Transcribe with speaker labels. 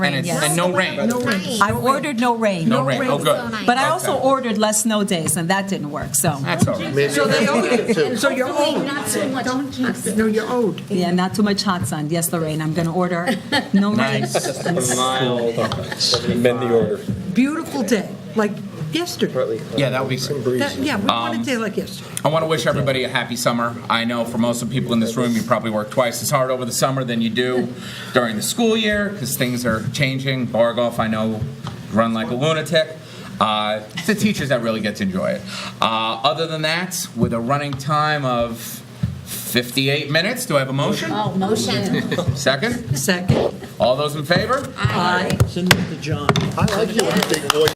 Speaker 1: And
Speaker 2: Rain,
Speaker 1: it's-
Speaker 2: yes.
Speaker 1: And no
Speaker 3: No
Speaker 1: rain?
Speaker 3: rain. Rain.
Speaker 2: I ordered no rain.
Speaker 1: No rain, oh,
Speaker 3: rain.
Speaker 1: good.
Speaker 3: But
Speaker 2: But I also
Speaker 1: Okay.
Speaker 2: ordered less snow days, and that didn't work, so,
Speaker 1: That's all right.
Speaker 4: So they owe you. So you're
Speaker 3: Hopefully
Speaker 4: owed.
Speaker 3: not so much.
Speaker 4: Don't jinx it. No, you're owed.
Speaker 2: yeah, not too much hot sun. Yes, Lorraine, I'm going to order no rain.
Speaker 1: Nice.
Speaker 5: Amend the order.
Speaker 4: Beautiful day, like yesterday.
Speaker 1: Yeah, that would be great.
Speaker 4: That- Yeah, we want a day like yesterday.
Speaker 1: I want to wish everybody a happy summer. I know for most of the people in this room, you probably work twice as hard over the summer than you do during the school year because things are changing. Bar golf, I know, run like a lunatic. Uh, it's the teachers that really get to enjoy it. Uh, other than that, with a running time of 58 minutes, do I have a motion?
Speaker 3: Oh, motion.
Speaker 1: Second?
Speaker 4: Second.
Speaker 1: All those in favor?
Speaker 3: Aye.
Speaker 6: Send it to John.
Speaker 7: I like you when you take voice